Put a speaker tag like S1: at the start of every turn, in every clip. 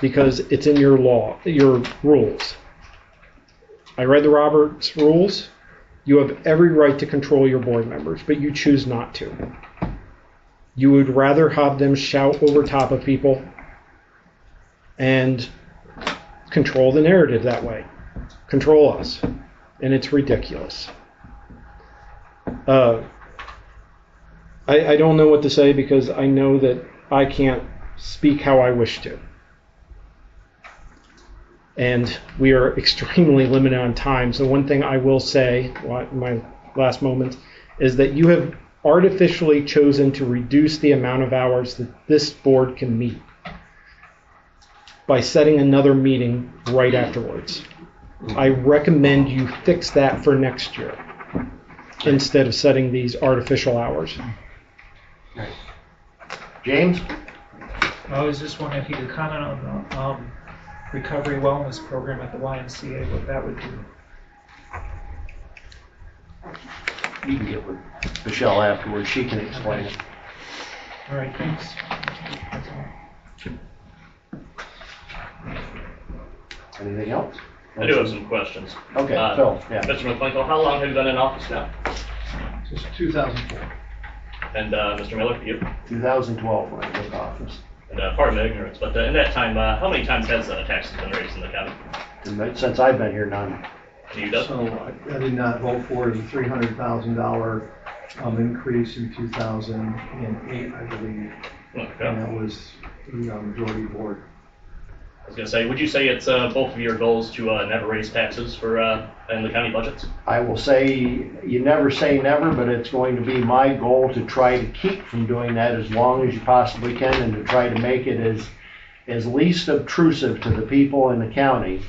S1: because it's in your law, your rules. I read the Roberts rules. You have every right to control your board members, but you choose not to. You would rather have them shout over top of people and control the narrative that way, control us. And it's ridiculous. Uh, I, I don't know what to say because I know that I can't speak how I wish to. And we are extremely limited on time. So, one thing I will say, wa- my last moment, is that you have artificially chosen to reduce the amount of hours that this board can meet by setting another meeting right afterwards. I recommend you fix that for next year instead of setting these artificial hours.
S2: James?
S3: I was just wondering if you could comment on the um, recovery wellness program at the YMCA, what that would do.
S2: You can get with Michelle afterwards, she can explain it.
S3: All right, thanks. That's all.
S2: Anything else?
S4: I do have some questions.
S2: Okay,
S4: Uh,
S2: Phil, yeah.
S4: Mr. McClinkle, how long have you been in office now?
S5: Since 2004.
S4: And uh, Mr. Miller, you?
S2: 2012 when I took office.
S4: And uh, pardon my ignorance, but uh, in that time, uh, how many times has uh, taxes been raised in the county?
S2: And that- since I've been here, none.
S4: Do you know?
S5: So I- I did not vote for the $300,000 um, increase in 2008, I believe.
S4: Okay.
S5: And
S4: I
S5: that was the um, majority board.
S4: was gonna say, would you say it's uh, both of your goals to uh, never raise taxes for, uh, in the county budgets?
S2: I will say, you never say never, but it's going to be my goal to try to keep from doing that as long as you possibly can and to try to make it as, as least obtrusive to the people in the county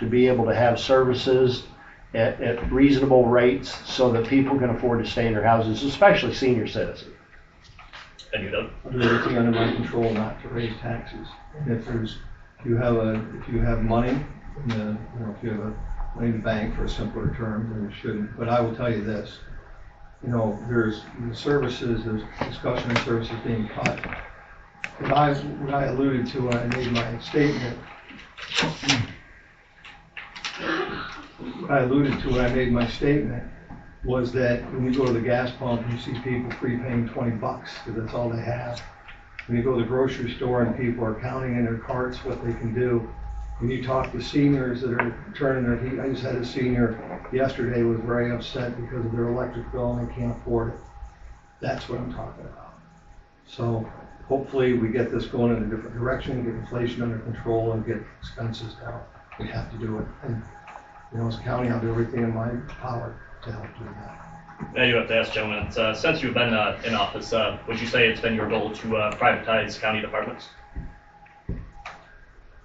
S2: to be able to have services at, at reasonable rates so that people can afford to stay in their houses, especially senior citizens.
S4: And you don't?
S5: I do everything under my control not to raise taxes. And If there's, if you have a, if you have money, in the- you know, if you have a money in the bank for a simpler term, then you shouldn't. But I will tell you this, you know, there's the services, there's discussion of services being cut. What I, what I alluded to when I made my statement, what I alluded to when I made my statement was that when you go to the gas pump, you see people prepaying twenty bucks, because that's all they have. When you go to the grocery store and people are counting in their carts what they can do, when you talk to seniors that are turning their heat, I just had a senior yesterday was very upset because of their electric bill and they can't afford it. That's what I'm talking about. So hopefully we get this going in a different direction, get inflation under control and get expenses down. We have to do it. And, you know, as a county, I'll do everything in my power to help do that.
S4: Now you have to ask, gentlemen, it's, uh, since you've been uh, in office, uh, would you say it's been your goal to uh, privatize county departments?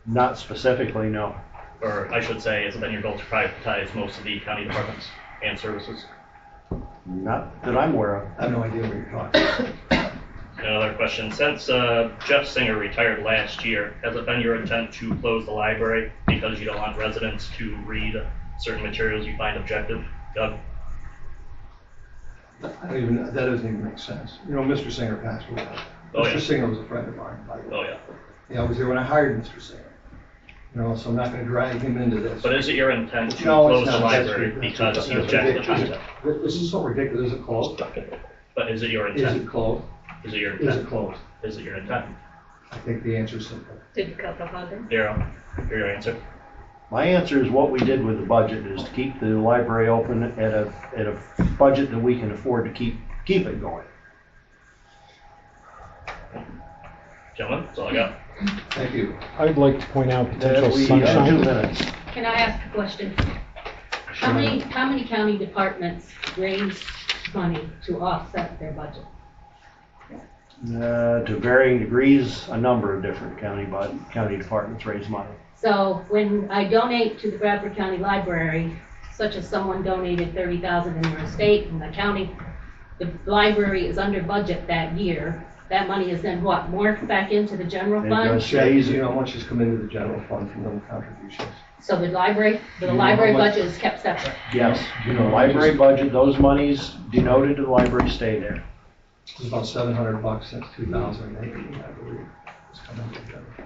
S2: Not specifically, no.
S4: Or I should say, it's been your goal to privatize most of the county departments and services?
S2: Not that I'm aware of.
S5: I have no idea what you're talking about.
S4: Another question. Since uh, Jeff Singer retired last year, has it been your intent to close the library because you don't want residents to read certain materials you find objective? Doug?
S5: I don't even, that doesn't even make sense. You know, Mr. Singer passed away.
S4: Oh, yeah.
S5: Mr. Singer was a friend of mine, by the way.
S4: Oh, yeah.
S5: Yeah, I was there when I hired Mr. Singer. You know, so I'm not gonna drag him into this.
S4: But is it your intent to
S5: No, it's
S4: close the
S5: not. That's
S4: library
S5: ri-
S4: because
S5: that's
S4: you
S5: ri-
S4: object to
S5: that's ridiculous.
S4: content?
S5: This is so ridiculous. Is it closed?
S4: But is it your
S5: Is it
S4: intent?
S5: closed?
S4: Is it your
S5: Is it
S4: intent?
S5: closed?
S4: Is it your intent?
S5: I think the answer's simple.
S6: Did you cut the funding?
S4: Daryl, hear your answer.
S2: My answer is what we did with the budget is to keep the library open at a, at a budget that we can afford to keep, keep it going.
S4: Gentlemen, that's all I got.
S5: Thank you.
S1: I'd like to point out potential
S2: That we- uh, Two
S1: sunshine.
S2: minutes.
S6: Can I ask a question? How many, how many county departments raise money to offset their budget?
S2: Uh, To varying degrees, a number of different county, bud- county departments raise money.
S6: So when I donate to the Bradford County Library, such as someone donated thirty thousand in their estate and the county, the library is under budget that year, that money is then what, morphed back into the general
S2: It
S6: fund?
S2: does.
S5: Shays, you know, how much has come into the general fund from those contributions?
S6: So the library,
S5: You
S6: the
S5: know how
S6: library
S5: much-
S6: budget is kept separate.
S2: Yes,
S5: You
S2: the
S5: know,
S2: library budget, those monies denoted to the library stay there.
S5: It's about seven hundred bucks since two thousand and eight, I believe. It's come into the general.